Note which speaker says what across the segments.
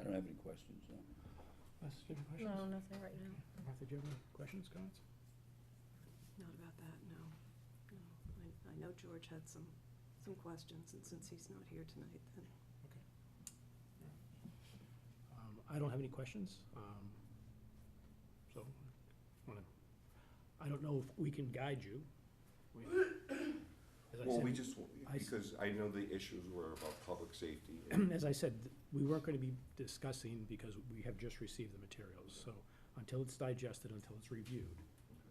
Speaker 1: I don't have any questions, no.
Speaker 2: Wes, do you have any
Speaker 3: No,
Speaker 2: questions?
Speaker 3: nothing right now.
Speaker 2: Martha, do you have any questions, comments?
Speaker 4: Not about that, no. No. I, I know George had some, some questions, and since he's not here tonight, then
Speaker 2: Um, I don't have any questions, um, so, wanna- I don't know if we can guide you. We- as I
Speaker 5: Well, we
Speaker 2: said-
Speaker 5: just,
Speaker 2: I s-
Speaker 5: because I know the issues were about public safety. and
Speaker 2: as I said, th- we weren't gonna be discussing because we have just received the materials, so until it's digested, until it's reviewed,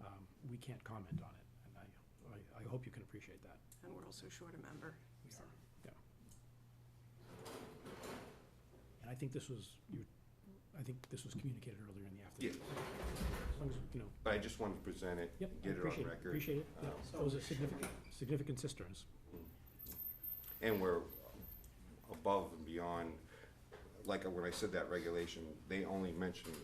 Speaker 2: um, we can't comment on it, and I, I, I hope you can appreciate that.
Speaker 4: and we're also short a member.
Speaker 2: We
Speaker 4: so.
Speaker 2: are, yeah. And I think this was, you, I think this was communicated earlier in the afternoon. As long as, you know,
Speaker 5: But I just wanted to present it,
Speaker 2: yep, I
Speaker 5: get it on
Speaker 2: appreciate it,
Speaker 5: record.
Speaker 2: appreciate it, yeah.
Speaker 5: Um,
Speaker 2: Those are significant, significant cisterns.
Speaker 5: And we're above and beyond, like when I said that regulation, they only mentioned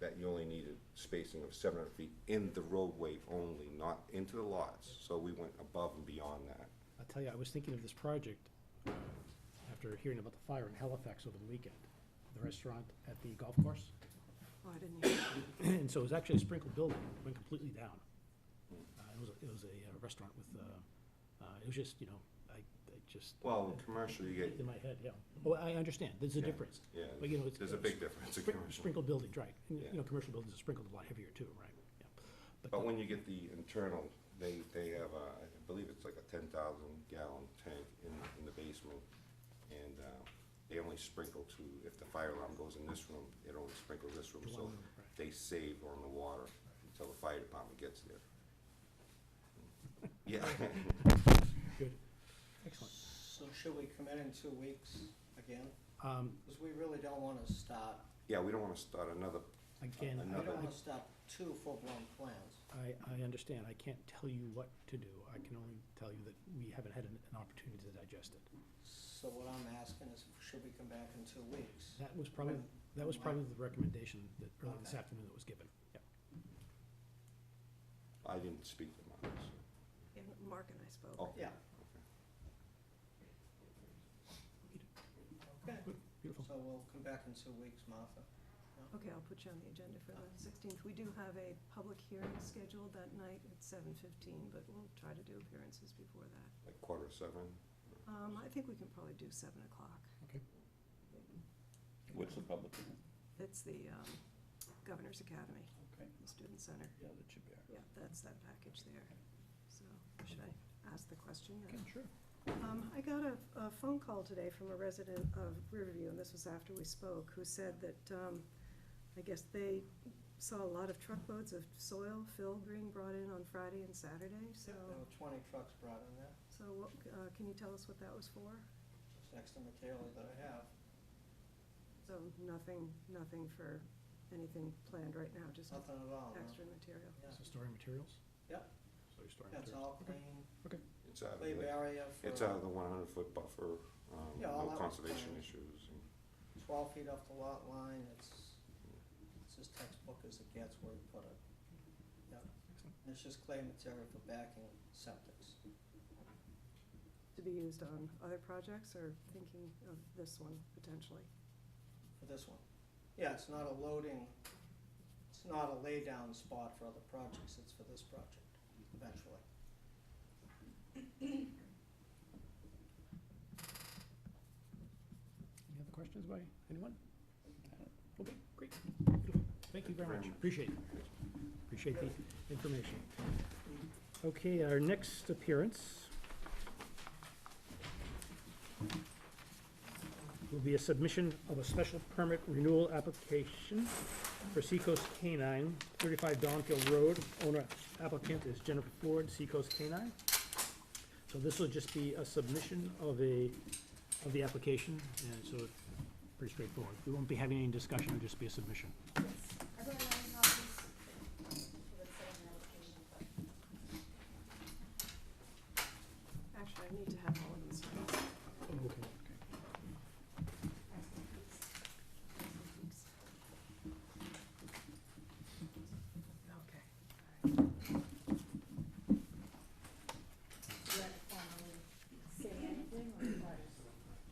Speaker 5: that you only needed spacing of seven hundred feet in the roadway only, not into the lots. So we went above and beyond that.
Speaker 2: I'll tell you, I was thinking of this project uh, after hearing about the fire in Halifax over the weekend, the restaurant at the golf course.
Speaker 4: Oh, I didn't hear.
Speaker 2: And so it was actually a sprinkled building, it went completely down. Uh, It was, a- it was a uh, restaurant with, uh, uh, it was just, you know, I, I just.
Speaker 5: Well, commercial, you
Speaker 2: In
Speaker 5: get,
Speaker 2: my head, yeah. Well, I understand, there's a
Speaker 5: Yeah,
Speaker 2: difference.
Speaker 5: yeah,
Speaker 2: But, you know, it's.
Speaker 5: there's a big difference in
Speaker 2: Sprin-
Speaker 5: commercial.
Speaker 2: Sprinkled buildings, right. And, You
Speaker 5: Yeah. Oh,
Speaker 2: know, commercial buildings are sprinkled a lot heavier too, right? Yeah.
Speaker 5: But
Speaker 2: the-
Speaker 5: when you get the internal, they, they have, a- I believe it's like a ten thousand gallon tank in, in the basement. And, uh, they only sprinkle to, if the fire alarm goes in this room, it only sprinkles this room.
Speaker 2: To one
Speaker 5: So
Speaker 2: room, right.
Speaker 5: they save on the water until the fire department gets there. Yeah,
Speaker 2: Good. Excellent.
Speaker 6: So should we come in in two weeks again?
Speaker 2: Um,
Speaker 6: Because we really don't want to start,
Speaker 5: yeah, we don't wanna start another,
Speaker 2: Again,
Speaker 6: we
Speaker 2: I-
Speaker 6: don't
Speaker 5: Another-
Speaker 6: want to start two full-blown plans.
Speaker 2: I, I understand. I can't tell you what to do. I can only tell you that we haven't had an an opportunity to digest it.
Speaker 6: So what I'm asking is, should we come back in two weeks?
Speaker 2: That was probably, that was probably the recommendation that, earlier this
Speaker 6: Okay.
Speaker 2: afternoon that was given. Yeah.
Speaker 5: I didn't speak to mine,
Speaker 4: Yeah, Mark and I spoke.
Speaker 2: Oh.
Speaker 5: so, okay.
Speaker 6: Yeah,
Speaker 5: Oh. okay.
Speaker 6: okay.
Speaker 2: Good, Beautiful.
Speaker 6: So we'll come back in two weeks, Martha.
Speaker 4: Okay, I'll put you on the agenda for
Speaker 2: Oh.
Speaker 4: the sixteenth. We do have a public hearing scheduled that night at seven fifteen, but we'll try to do appearances before that.
Speaker 5: Like quarter of seven,
Speaker 4: Um, I think we can probably do seven o'clock.
Speaker 2: Okay.
Speaker 1: What's the public, hearing?
Speaker 4: It's the, um, Governor's Academy,
Speaker 1: okay,
Speaker 4: the Student Center.
Speaker 1: yeah, that should be all right.
Speaker 4: Yeah, that's that package there. So, should I ask the question yet?
Speaker 2: Okay, sure.
Speaker 4: Um, I got a, a phone call today from a resident of Riverview, and this was after we spoke, who said that, um, I guess they saw a lot of truckloads of soil, fill being brought in on Friday and Saturday, so,
Speaker 6: There were twenty trucks brought in there,
Speaker 4: so what, uh, can you tell us what that was for?
Speaker 6: it's next to Michaela that I have.
Speaker 4: So nothing, nothing for anything planned right now, just
Speaker 6: Nothing at all, no.
Speaker 4: extra material.
Speaker 6: Yeah.
Speaker 2: So storing materials?
Speaker 6: Yeah,
Speaker 2: So you're storing
Speaker 6: that's
Speaker 2: materials?
Speaker 6: all
Speaker 2: Okay.
Speaker 6: clean,
Speaker 2: Okay.
Speaker 5: it's out of
Speaker 6: clay
Speaker 5: the,
Speaker 6: barrier
Speaker 5: it's out of
Speaker 6: for uh,
Speaker 5: the one hundred foot buffer, um,
Speaker 6: Yeah, all
Speaker 5: no
Speaker 6: that was
Speaker 5: conservation
Speaker 6: planned.
Speaker 5: issues and.
Speaker 6: twelve feet off the lot line, it's, it's as textbook as it gets where you put it. Yeah.
Speaker 2: Excellent.
Speaker 6: And It's just clay material for backing septics.
Speaker 4: To be used on other projects, or thinking of this one potentially?
Speaker 6: for this one. Yeah, it's not a loading, it's not a laydown spot for other projects, it's for this project eventually.
Speaker 2: Any other questions by anyone? Okay, great. Beautiful. Thank you very much. Appreciate it. Appreciate the information. Okay, our next appearance will be a submission of a special permit renewal application for Seacoast Canine, 35 Donfield Road. Owner applicant is Jennifer Ford, Seacoast Canine. So this will just be a submission of a of the application, and so it's pretty straightforward. We won't be having any discussion, it'll just be a submission.